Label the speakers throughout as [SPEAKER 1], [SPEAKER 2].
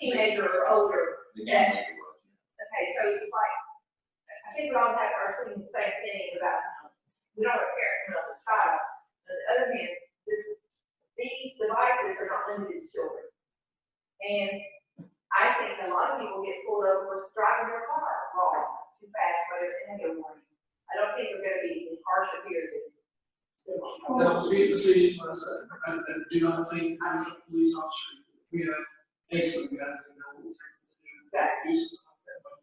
[SPEAKER 1] teenager or older.
[SPEAKER 2] The game maker was.
[SPEAKER 1] Okay, so it's like, I think we all have our same, same thing about, we don't have parents when I was a child. On the other hand, this- these devices are not limited to children. And I think a lot of people get pulled over for driving their car wrong, too fast, whatever, and they get a warning. I don't think we're gonna be harsher here than.
[SPEAKER 3] That was me at the city's last, I, I uh, do not think I'm a police officer, we have excellent guys that know what to do. Do something like that, but,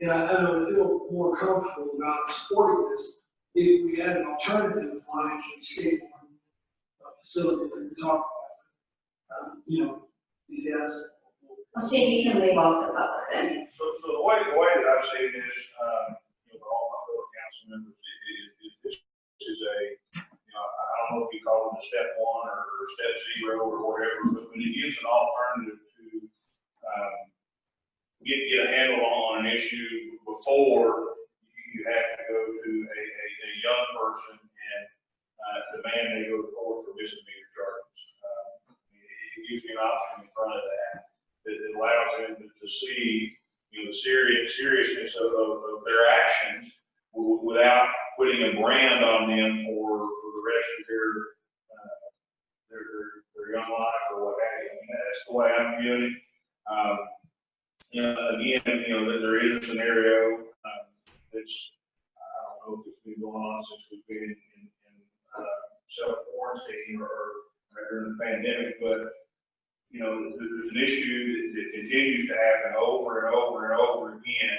[SPEAKER 3] Yeah, I don't feel more comfortable about supporting this if we had an alternative like a skateboard uh, facility that we talked about. Um, you know, these guys.
[SPEAKER 4] Well, see, you can leave off the public then.
[SPEAKER 5] So, so the way, the way that I've seen this, um, you know, with all my fellow council members, i- i- i- this is a, you know, I I don't know if you call it a step one or or step zero or whatever, but when it gives an alternative to, um, get, get a handle on an issue before you have to go to a, a, a young person and, uh, demand they go to court for misdemeanor charges. Uh, It it gives you an option in front of that, that that allows them to- to see you know, the serious, seriousness of, of, of their actions w- without putting a brand on them for, for the rest of their, uh, their, their, their young life or what have you. I mean, that's the way I'm viewing it. Um, you know, again, you know, there, there is a scenario, um, that's, I don't know if it's been going on since we've been in, in, in, uh, self-quarantine or, or during the pandemic, but you know, there- there's an issue that, that continues to happen over and over and over again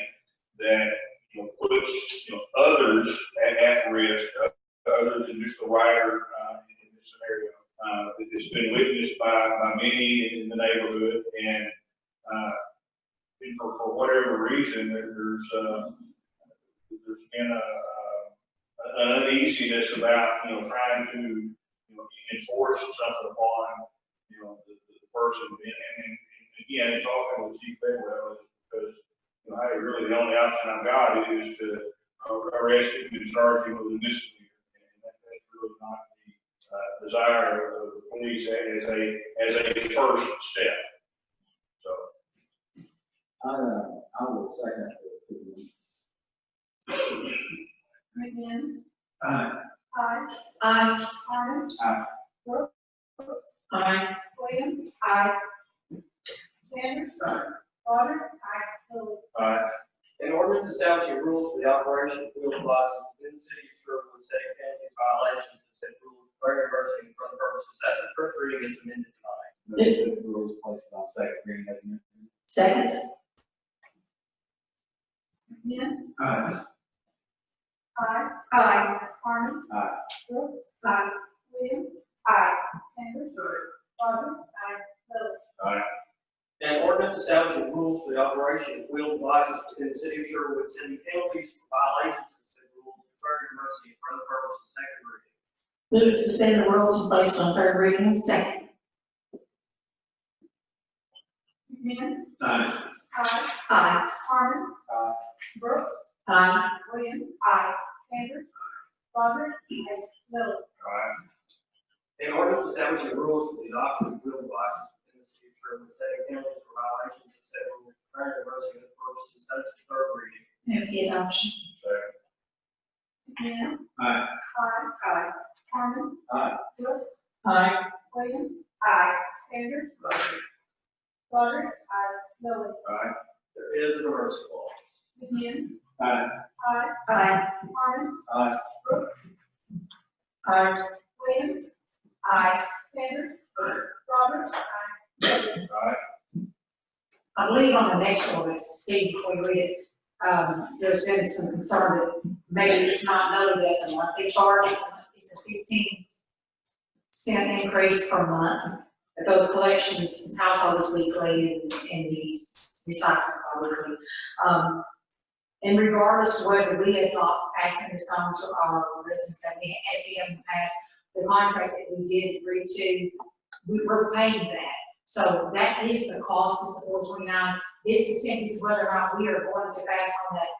[SPEAKER 5] that, you know, puts, you know, others at, at risk, uh, other than just the rider, uh, in this scenario. Uh, it- it's been witnessed by, by many in the neighborhood and, uh, and for, for whatever reason, there- there's, uh, there's been a, uh, an uneasiness about, you know, trying to, you know, enforce something upon you know, the, the the person, and, and, and and again, it's all kind of chief Bedwell, because, you know, hey, really, the only option I've got is to uh, arrest him and charge him with a misdemeanor. And that- that's really not the, uh, desire of the police as a, as a first step, so.
[SPEAKER 2] I, uh, I will second that.
[SPEAKER 1] McMinn,
[SPEAKER 2] Aye.
[SPEAKER 1] Hodge,
[SPEAKER 4] Aye.
[SPEAKER 1] Harmon.
[SPEAKER 2] Aye.
[SPEAKER 1] Brooks. Aye. Williams. Aye. Sanders.
[SPEAKER 2] Aye.
[SPEAKER 1] Goddard. Aye. Lily.
[SPEAKER 5] Uh,
[SPEAKER 6] An ordinance establishing rules for the operation of wheel devices within the city of Sherwood, setting penalties, violations of said rules, declaring emergency for other purposes. That's the first reading is amended tonight.
[SPEAKER 2] Motion to rules placed on second reading has been.
[SPEAKER 4] Second.
[SPEAKER 1] McMinn.
[SPEAKER 2] Aye.
[SPEAKER 1] Aye.
[SPEAKER 4] Aye.
[SPEAKER 1] Harmon.
[SPEAKER 2] Aye.
[SPEAKER 1] Brooks. Aye. Williams. Aye. Sanders. Goddard. Aye. Lily.
[SPEAKER 6] An ordinance establishing rules for the operation of wheel devices within the city of Sherwood, setting penalties for violations of said rules, declaring emergency for other purposes.
[SPEAKER 7] Move
[SPEAKER 6] Second reading.
[SPEAKER 7] to suspend the rules and place on third reading. Second.
[SPEAKER 1] McMinn.
[SPEAKER 2] Aye.
[SPEAKER 1] Aye.
[SPEAKER 4] Aye.
[SPEAKER 1] Harmon.
[SPEAKER 2] Aye.
[SPEAKER 1] Brooks.
[SPEAKER 7] Aye.
[SPEAKER 1] Williams. Aye. Sanders. Goddard. Aye. Lily.
[SPEAKER 5] Aye.
[SPEAKER 6] An ordinance establishing rules for the adoption of wheel devices within the city of Sherwood, setting penalties for violations of said rules, declaring emergency for other purposes. That's the third reading.
[SPEAKER 7] Move the adoption.
[SPEAKER 1] McMinn.
[SPEAKER 2] Aye.
[SPEAKER 1] Aye.
[SPEAKER 4] Aye.
[SPEAKER 1] Harmon.
[SPEAKER 2] Aye.
[SPEAKER 1] Brooks.
[SPEAKER 7] Aye.
[SPEAKER 1] Williams. Aye. Sanders. Goddard. Aye. Lily.
[SPEAKER 2] Aye.
[SPEAKER 6] There is an emergency clause.
[SPEAKER 1] McMinn.
[SPEAKER 2] Aye.
[SPEAKER 1] Aye.
[SPEAKER 4] Aye.
[SPEAKER 1] Harmon.
[SPEAKER 2] Aye.
[SPEAKER 7] Aye.
[SPEAKER 1] Williams. Aye. Sanders. Roberts. Aye.
[SPEAKER 7] I believe on the next one, it's Steve, before we read it, um, there's been some concern that maybe it's not noted as a monthly charge. It's a fifteen cent increase per month. But those collections, households weekly and, and these recyclings are weekly. Um, and regardless of whether we adopt passing this on to our residents, and we, as we have passed the contract that we did agree to, we were paying that. So that is the cost is the four twenty-nine. This is simply whether or not we are going to pass on that